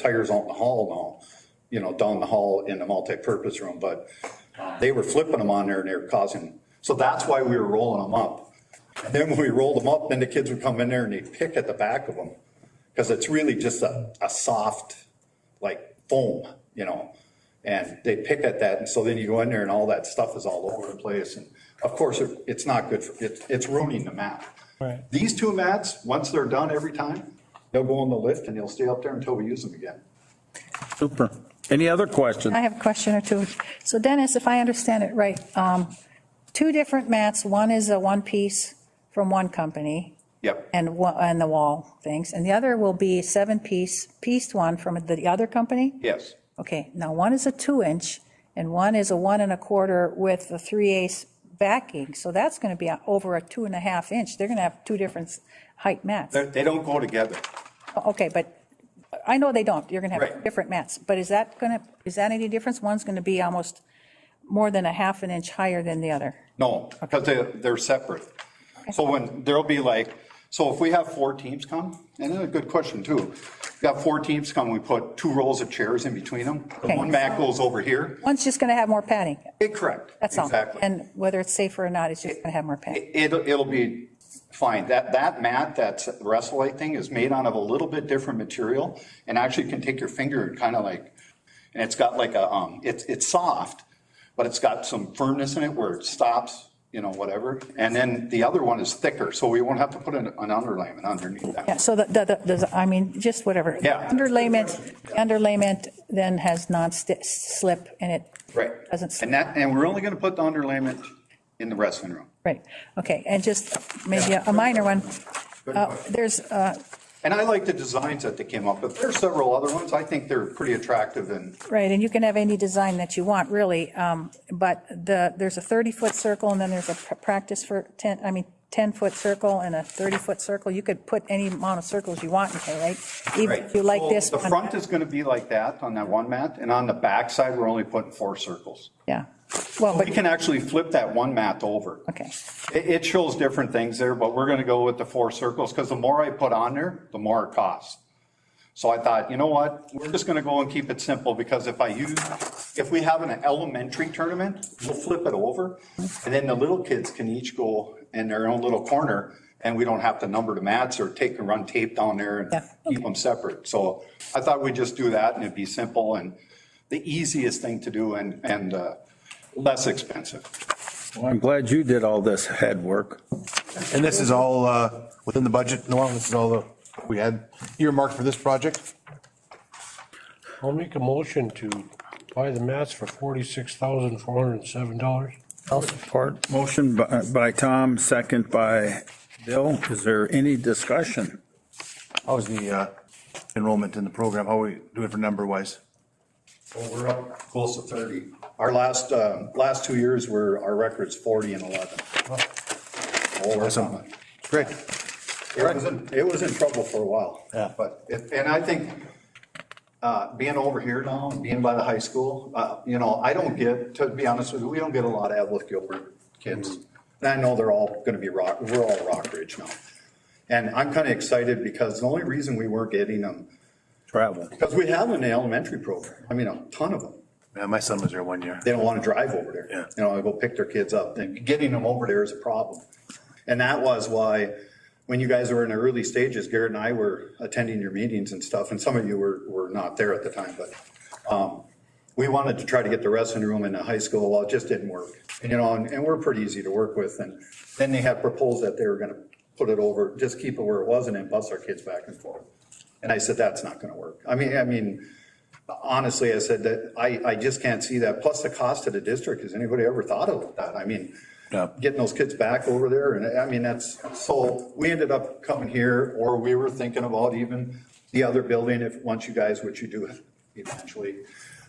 tires out in the hall now, you know, down the hall in the multi-purpose room, but um, they were flipping them on there and they were causing, so that's why we were rolling them up. And then when we rolled them up, then the kids would come in there and they'd pick at the back of them. Cause it's really just a, a soft, like foam, you know? And they pick at that, and so then you go in there and all that stuff is all over the place. And of course, it- it's not good, for it's, it's ruining the mat. Right. These two mats, once they're done every time, they'll go on the lift and they'll stay up there until we use them again. Super. Any other questions? I have a question or two. So Dennis, if I understand it right, um, two different mats, one is a one-piece from one company Yep. and, wa- and the wall things, and the other will be seven-piece, pieced one from the other company? Yes. Okay, now one is a two-inch and one is a one and a quarter with a three-eighths backing, so that's going to be over a two and a half inch. They're going to have two different height mats. They're- They don't go together. Oh, Okay, but I know they don't, you're going to Right. have different mats, but is that going to, is that any difference? One's going to be almost more than a half an inch higher than the other. No, because they, they're separate. So when, there'll be like, so if we have four teams come, and then a good question too. We Got four teams come, we put two rows of chairs in between them. Okay. One mat goes over here. One's just going to have more padding, Correct. that's all. Exactly. And whether it's safer or not, it's just going to have more padding. It'll, it'll be fine. That, that mat, that's Wrestlelite thing is made out of a little bit different material and actually can take your finger and kind of like, and it's got like a, um, it's, it's soft, but it's got some firmness in it where it stops, you know, whatever. And then the other one is thicker, so we won't have to put an, an underlayment underneath Yeah, that. so the, the, the- the, I mean, just whatever. Yeah. Underlayment, the underlayment then has non-slip and it. Doesn't. slip. And that, and we're only going to put the underlayment in the wrestling room. Right, okay, and just maybe a a minor one. Uh, There's, uh, And I like the designs that they came up with. There's several other ones. I think they're pretty attractive and right, and you can have any design that you want, really, um, but the, there's a 30-foot circle, and then there's a pr- practice for 10, I mean, 10-foot circle and a 30-foot circle. You could put any amount of circles you want, okay, right? Even if you like Well, this The one. front is going to be like that on that one mat, and on the back side, we're only putting four circles. Yeah, well, We can but, actually flip that one mat over. okay, It, it shows different things there, but we're going to go with the four circles, because the more I put on there, the more it costs. So I thought, you know what, we're just going to go and keep it simple, because if I use, if we have an elementary tournament, we'll flip it over, and then the little kids can each go in their own little corner, and we don't have to number the mats or take and run tape down there and Yeah, keep them separate. So I thought we'd just do that, and it'd be simple and the easiest thing to do and, and uh, less expensive. Well, I'm glad you did all this head work. And this is all uh, within the budget, Noel, this is all the- we had earmarked for this project? I'll make a motion to buy the mats for forty-six thousand, four hundred and seven dollars. I'll support. Motion by by Tom, second by Bill. Is there any discussion? How's the uh, enrollment in the program, how are we doing for number wise? Well, we're up close to 30. Our last, uh, last two years were, our record's 40 and 11. Oh, we're on it. Great. It was in, it was in trouble for a while. Yeah. But, it- and I think, uh, being over here now, being by the high school, uh, you know, I don't get, to be honest with you, we don't get a lot of Evelyn Gilbert kids. And I know they're all gonna be Rock, we're all Rock Ridge now. And I'm kinda excited because the only reason we weren't getting them, Travel. because we have an elementary program, I mean, a ton of them. Yeah, my son was there one year. they don't want to drive over there. Yeah. You know, they go pick their kids up. Then Getting them over there is a problem. And that was why, when you guys were in the early stages, Garrett and I were attending your meetings and stuff, and some of you were, were not there at the time, but, um, we wanted to try to get the wrestling room in the high school, well, it just didn't work. And, you know, and, and we're pretty easy to work with, and then they had proposed that they were gonna put it over, just keep it where it was and then bus our kids back and forth. And I said, that's not gonna work. I mean, I mean, honestly, I said that I, I just can't see that. Plus the cost to the district. Has anybody ever thought of that? I mean, Yeah. getting those kids back over there and I mean, that's, so we ended up coming here or we were thinking about even the other building if, once you guys, which you do eventually,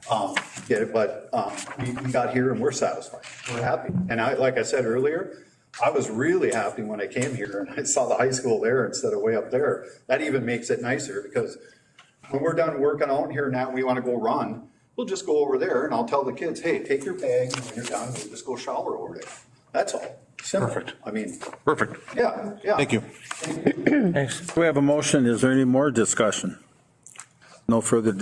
um, get it, but, um, we, we got here and we're satisfied. We're happy. And I, like I said earlier, I was really happy when I came here and I saw the high school there instead of way up there. That even makes it nicer because when we're done working out here now, we want to go run, we'll just go over there and I'll tell the kids, hey, take your bag, and when you're done, we'll just go shower over there. That's all. Simple. Perfect. I mean, Perfect. yeah, yeah. Thank you. Thanks. We have a motion. Is there any more discussion? No further discussion?